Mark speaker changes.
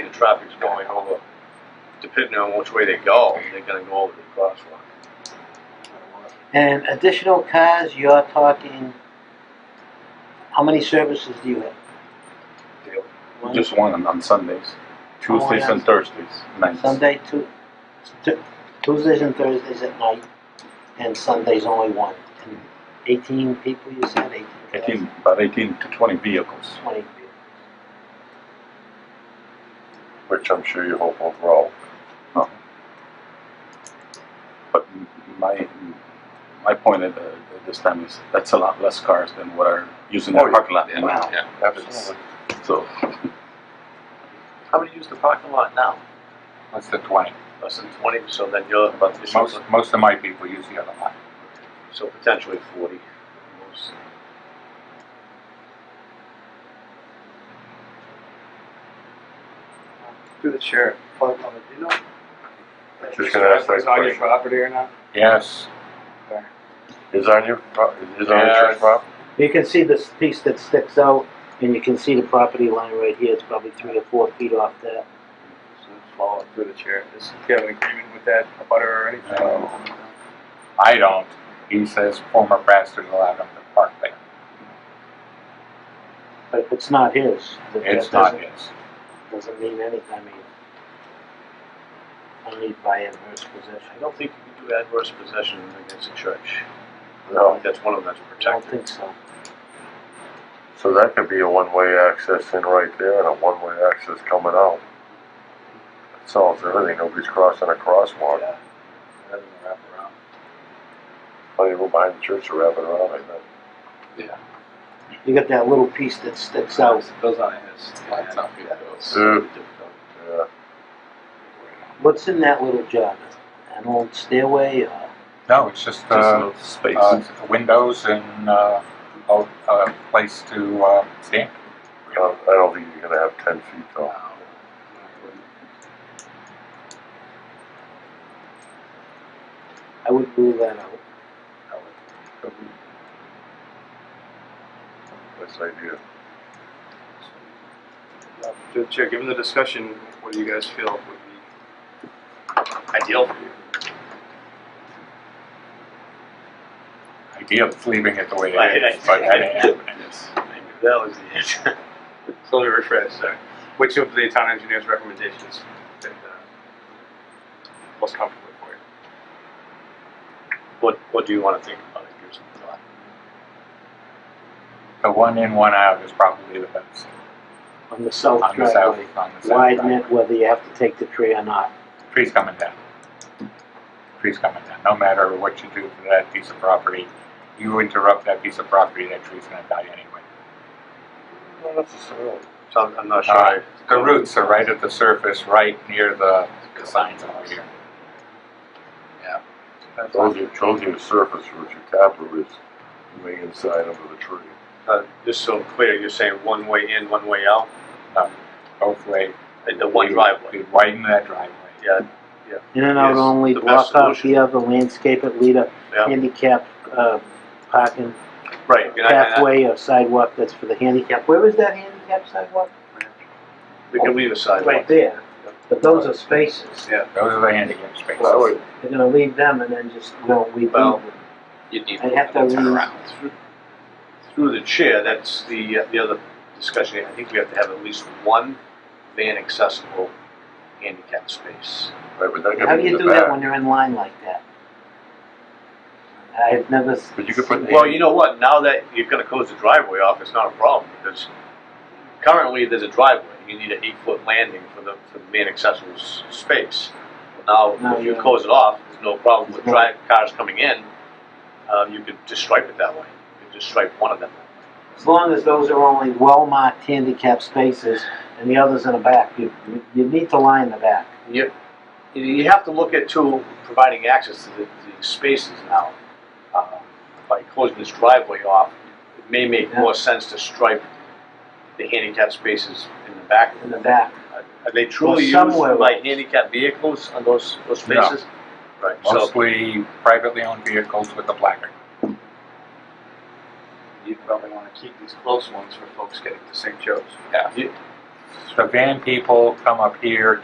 Speaker 1: traffic's going over, depending on which way they go, they're gonna go over the crosswalk.
Speaker 2: And additional cars, you're talking, how many services do you have?
Speaker 1: Daily.
Speaker 2: One
Speaker 3: Just one on- on Sundays, Tuesdays and Thursdays nights.
Speaker 2: Sunday, Tu- Tu- Tuesdays and Thursdays at night, and Sundays only one. And Eighteen people, you said, eighteen cars?
Speaker 3: Eighteen, about eighteen to twenty vehicles.
Speaker 2: Twenty.
Speaker 4: which I'm sure you hope will grow.
Speaker 3: Um, But m- my, my point at, uh, at this time is that's a lot less cars than what are using
Speaker 4: Oh,
Speaker 3: the
Speaker 4: yeah.
Speaker 3: parking lot now.
Speaker 1: Yeah.
Speaker 4: Absolutely.
Speaker 3: So
Speaker 1: How many use the parking lot now?
Speaker 5: What's the twenty?
Speaker 1: Less than twenty, so then you're about,
Speaker 5: Most, most of my people use the other one.
Speaker 1: so potentially forty. Most-
Speaker 6: Through the chair, Fire Department, do you know? if
Speaker 4: Just gonna ask that
Speaker 6: it's on your
Speaker 4: question.
Speaker 6: property or not?
Speaker 5: Yes.
Speaker 4: Is on your, pro- is on your church
Speaker 5: Yes.
Speaker 4: property?
Speaker 2: You can see this piece that sticks out, and you can see the property line right here, it's probably three or four feet off that.
Speaker 6: So just follow it through the chair. Does he have an agreement with that butter or anything?
Speaker 5: No. I don't. He says former pastors allowed him to park there.
Speaker 2: But if it's not his, then that
Speaker 5: It's not
Speaker 2: doesn't,
Speaker 5: his.
Speaker 2: doesn't mean anything, I mean. I need by adverse possession,
Speaker 1: I don't think you can do adverse possession against a church. I
Speaker 4: No,
Speaker 1: think That's one of them that's
Speaker 2: I don't
Speaker 1: protected.
Speaker 2: think so.
Speaker 4: so that could be a one-way access in right there and a one-way access coming out. That solves everything, nobody's crossing a crosswalk,
Speaker 1: Yeah. Rather than wrap around.
Speaker 4: plenty of room behind the church to wrap it around, I think.
Speaker 2: You got that little piece that sticks out,
Speaker 1: Those aren't his.
Speaker 5: That's not his.
Speaker 4: So, yeah,
Speaker 2: what's in that little jog? An old stairway, uh, or?
Speaker 5: No, it's just,
Speaker 3: just a
Speaker 5: uh,
Speaker 3: little space.
Speaker 5: uh, windows and, uh, a, a place to, uh, stand.
Speaker 4: I don't, I don't think you're gonna have ten feet though.
Speaker 2: I would rule that out.
Speaker 4: That's the idea.
Speaker 6: Uh, Through the chair, given the discussion, what do you guys feel would be ideal for you?
Speaker 5: Idea of leaving it the way
Speaker 1: Right,
Speaker 5: it is,
Speaker 1: right.
Speaker 5: but that ain't happening.
Speaker 1: Maybe that was the answer.
Speaker 6: So let me rephrase, sorry. Which of the town engineer's recommendations been uh, most comfortable for you?
Speaker 1: What, what do you want to think about it? Give some thought.
Speaker 5: The one in, one out is probably the best
Speaker 2: On the south
Speaker 5: on the south,
Speaker 2: driveway,
Speaker 5: on the south.
Speaker 2: widen
Speaker 5: driveway.
Speaker 2: it whether you have to take the tree or not.
Speaker 5: Tree's coming down. Tree's coming down. No matter what you do to that piece of property, you interrupt that piece of property, that tree's gonna die anyway.
Speaker 4: Not necessarily.
Speaker 1: So I'm, I'm not sure.
Speaker 5: Uh, The roots are right at the surface, right near the, the signs over here.
Speaker 4: Those are, those are the surface roots, your tap root is way inside under the tree.
Speaker 1: Uh, Just so I'm clear, you're saying one way in, one way out,
Speaker 5: Um, Both way.
Speaker 1: and the one
Speaker 5: We-
Speaker 1: driveway?
Speaker 5: We widen that driveway.
Speaker 1: Yeah,
Speaker 2: In and out
Speaker 1: Yes,
Speaker 2: only,
Speaker 1: the
Speaker 2: block
Speaker 1: best
Speaker 2: off
Speaker 1: solution.
Speaker 2: the other, landscape it, lead a
Speaker 1: yeah,
Speaker 2: handicap, uh, parking
Speaker 1: right. and I- and I-
Speaker 2: pathway or sidewalk that's for the handicap. Where is that handicap sidewalk?
Speaker 1: We can leave a
Speaker 2: Right
Speaker 1: sidewalk.
Speaker 2: there. But those are spaces.
Speaker 5: Those are the handicap spaces.
Speaker 4: I would,
Speaker 2: They're gonna leave them and then just, don't leave
Speaker 1: Well,
Speaker 2: them.
Speaker 1: You'd need
Speaker 2: I have to leave.
Speaker 1: Through- Through the chair, that's the, uh, the other discussion, I think we have to have at least one van accessible handicap space.
Speaker 4: right, but that
Speaker 2: How do
Speaker 4: could be
Speaker 2: you
Speaker 4: in
Speaker 2: do
Speaker 4: the
Speaker 2: that
Speaker 4: back.
Speaker 2: when you're in line like that? I've never. s-
Speaker 4: But you could put-
Speaker 1: Well, you know what, now that you're gonna close the driveway off, it's not a problem, because currently there's a driveway, you need an eight-foot landing for the, for the main accessible s- space. Now,
Speaker 2: No,
Speaker 1: if you
Speaker 2: yeah.
Speaker 1: close it off, there's no problem with
Speaker 2: There's no-
Speaker 1: drive, cars coming in, um, you could just stripe it that way, you could just stripe one of them.
Speaker 2: As long as those are only well-marked handicap spaces and the others in the back, you, you- you need to line the back.
Speaker 1: You, you- you have to look at too, providing access to the, the spaces now. Uh, By closing this driveway off, it may make more sense to stripe the handicap spaces in the back.
Speaker 2: in the back.
Speaker 1: Are they truly used
Speaker 2: somewhere
Speaker 1: by
Speaker 2: else.
Speaker 1: handicap vehicles on those, those
Speaker 5: No.
Speaker 1: spaces? Right, so,
Speaker 5: Mostly privately owned vehicles with a placard.
Speaker 6: You probably want to keep these close ones for folks getting to St. Joe's.
Speaker 1: you-
Speaker 5: The van people come up here